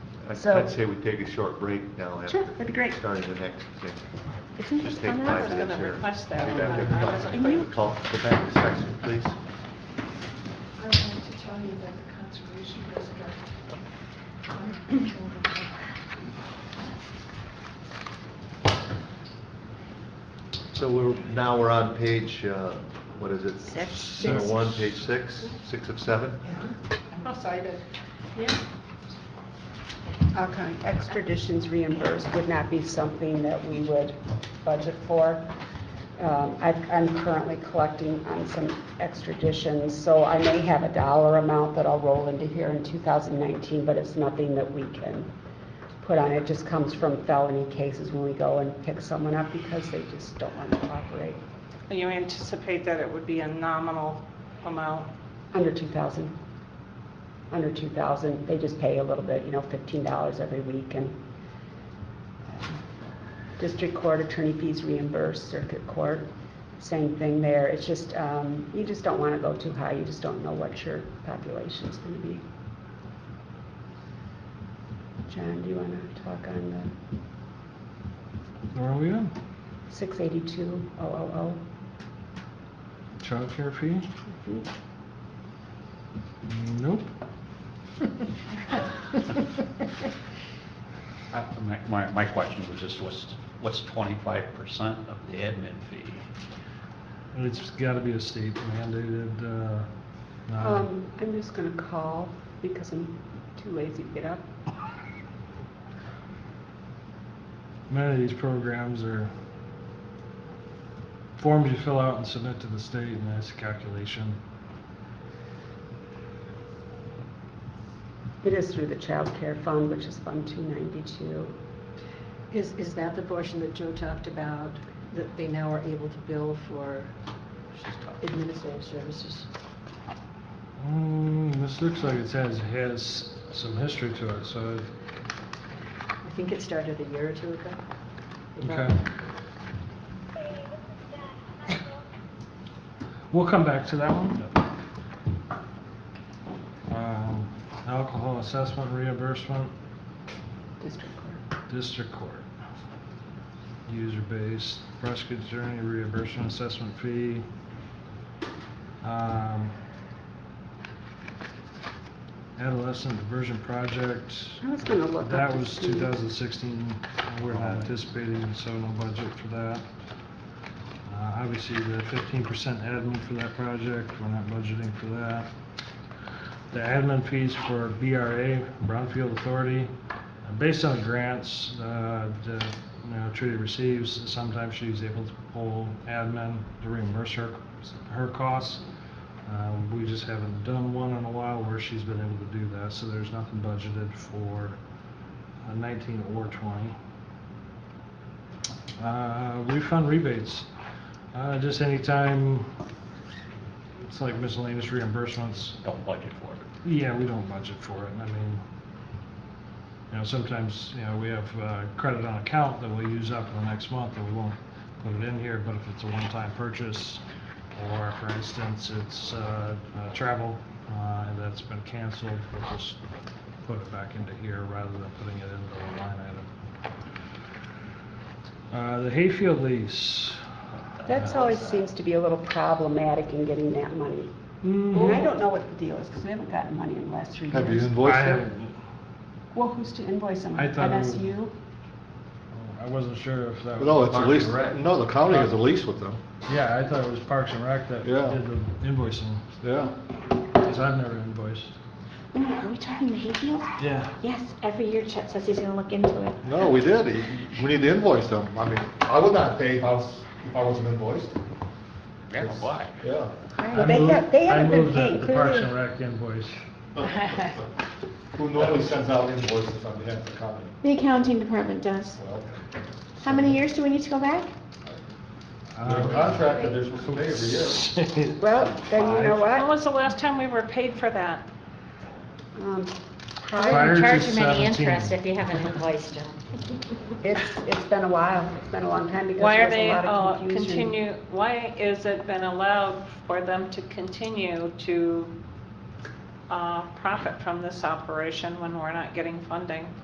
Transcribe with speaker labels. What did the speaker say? Speaker 1: I'd
Speaker 2: So-
Speaker 1: I'd say we take a short break now after.
Speaker 2: Sure, that'd be great.
Speaker 1: Starting the next thing.
Speaker 2: Isn't
Speaker 1: Just
Speaker 2: it
Speaker 1: take
Speaker 2: on that?
Speaker 1: five minutes
Speaker 3: gonna
Speaker 1: here.
Speaker 3: request that
Speaker 1: Go
Speaker 3: one.
Speaker 1: back to-
Speaker 3: I wasn't
Speaker 2: And you-
Speaker 1: Call, go back to section, please.
Speaker 4: I wanted to tell you that the conservation district.
Speaker 1: So we're, now we're on page, uh, what is it?
Speaker 2: Six.
Speaker 1: Number
Speaker 2: Six.
Speaker 1: one, page six, six of seven?
Speaker 3: I'm excited. Yeah.
Speaker 5: Okay, extraditions reimbursed would not be something that we would budget for. Um, I- I'm currently collecting on some extraditions, so I may have a dollar amount that I'll roll into here in 2019, but it's nothing that we can put on. It just comes from felony cases when we go and pick someone up because they just don't want to cooperate
Speaker 3: And You anticipate that it would be a nominal amount?
Speaker 5: under 2,000. Under 2,000, they just pay a little bit, you know, $15 every week and um, district court attorney fees reimbursed, circuit court, same thing there. It's just, um, you just don't want to go too high, you just don't know what your population's going to be. John, do you want to talk on
Speaker 6: Where are we on?
Speaker 5: the 682,000?
Speaker 6: Childcare fee? Nope.
Speaker 7: I- My, my, my question was just what's, what's twenty-five percent of the admin fee?
Speaker 6: It's gotta be a state mandated, uh, non-
Speaker 5: Um, I'm just going to call because I'm too lazy to get up.
Speaker 6: many of these programs are forms you fill out and submit to the state and that's a calculation.
Speaker 5: It is through the Child Care fund, which is Fund 292.
Speaker 4: Is, is that the portion that Joe talked about, that they now are able to bill for
Speaker 7: She's talking.
Speaker 4: administrative services?
Speaker 6: Mm, this looks like it has, has some history to it, so,
Speaker 4: I think it started a year or two ago.
Speaker 6: okay. We'll come back to that one. Um, alcohol assessment reimbursement.
Speaker 5: District Court.
Speaker 6: District Court. User-based prosecutor's attorney reimbursement assessment fee. Um, Adolescent diversion project.
Speaker 5: I was gonna look up
Speaker 6: That
Speaker 5: to
Speaker 6: was
Speaker 5: see.
Speaker 6: 2016, and we're not anticipating, so no budget for that. Uh, Obviously, the 15% admin for that project, we're not budgeting for that. The admin fees for BRA, Brownfield Authority, uh, based on grants uh, that, you know, Trudy receives, sometimes she's able to pull admin to reimburse her, her costs. Um, We just haven't done one in a while where she's been able to do that, so there's nothing budgeted for uh, 19 or 20. Uh, Refund rebates, Uh, just anytime, it's like miscellaneous reimbursements,
Speaker 7: Don't budget for it.
Speaker 6: yeah, we don't budget for it, I mean, you know, sometimes, you know, we have uh, credit on account that we'll use up in the next month, and we won't put it in here, but if it's a one-time purchase, or for instance, it's uh, uh, travel, uh, and that's been canceled, we'll just put it back into here rather than putting it into a line item. Uh, The hayfield lease.
Speaker 5: That's always seems to be a little problematic in getting that money. And I
Speaker 6: Mhm.
Speaker 5: don't know what the deal is, because we haven't gotten money in the last three years.
Speaker 1: Have you
Speaker 6: I
Speaker 1: invoiced it?
Speaker 6: haven't-
Speaker 5: Well, who's to invoice them?
Speaker 6: I thought it was-
Speaker 5: MSU?
Speaker 6: I wasn't sure if that was.
Speaker 1: No, it's a
Speaker 6: Parks
Speaker 1: lease,
Speaker 6: and Rec.
Speaker 1: no, the county has a lease with them,
Speaker 6: Yeah, I thought it was Parks and Rec that did
Speaker 1: Yeah.
Speaker 6: the invoicing,
Speaker 1: yeah.
Speaker 6: because I've never invoiced.
Speaker 8: Are we talking to Hayfield?
Speaker 6: Yeah.
Speaker 8: Yes, every year Chet says he's gonna look into it.
Speaker 1: No, we did, we need to invoice them, I mean, I would not pay if I was, if I wasn't invoiced,
Speaker 7: Yeah, why?
Speaker 1: yeah.
Speaker 5: Well, They have, they haven't been
Speaker 6: I moved
Speaker 5: paying
Speaker 6: that the Parks and
Speaker 5: clearly.
Speaker 6: Rec invoice.
Speaker 1: Who normally sends out invoices on behalf of the county?
Speaker 8: The accounting department does.
Speaker 1: Well,
Speaker 8: How many years do we need to go back?
Speaker 1: there's a
Speaker 6: Um,
Speaker 1: contract that they're supposed to pay every year.
Speaker 5: Well, then you know
Speaker 3: When
Speaker 5: what?
Speaker 3: was the last time we were paid for that?
Speaker 5: Um, hi-
Speaker 6: Prior to
Speaker 8: Charge him any
Speaker 6: 17.
Speaker 8: interest if you haven't invoiced him.
Speaker 5: It's, it's been a while, it's been a long time because
Speaker 3: Why are
Speaker 5: there's
Speaker 3: they,
Speaker 5: a lot
Speaker 3: uh,
Speaker 5: of confusion.
Speaker 3: continue, why is it been allowed for them to continue to uh, profit from this operation when we're not getting funding?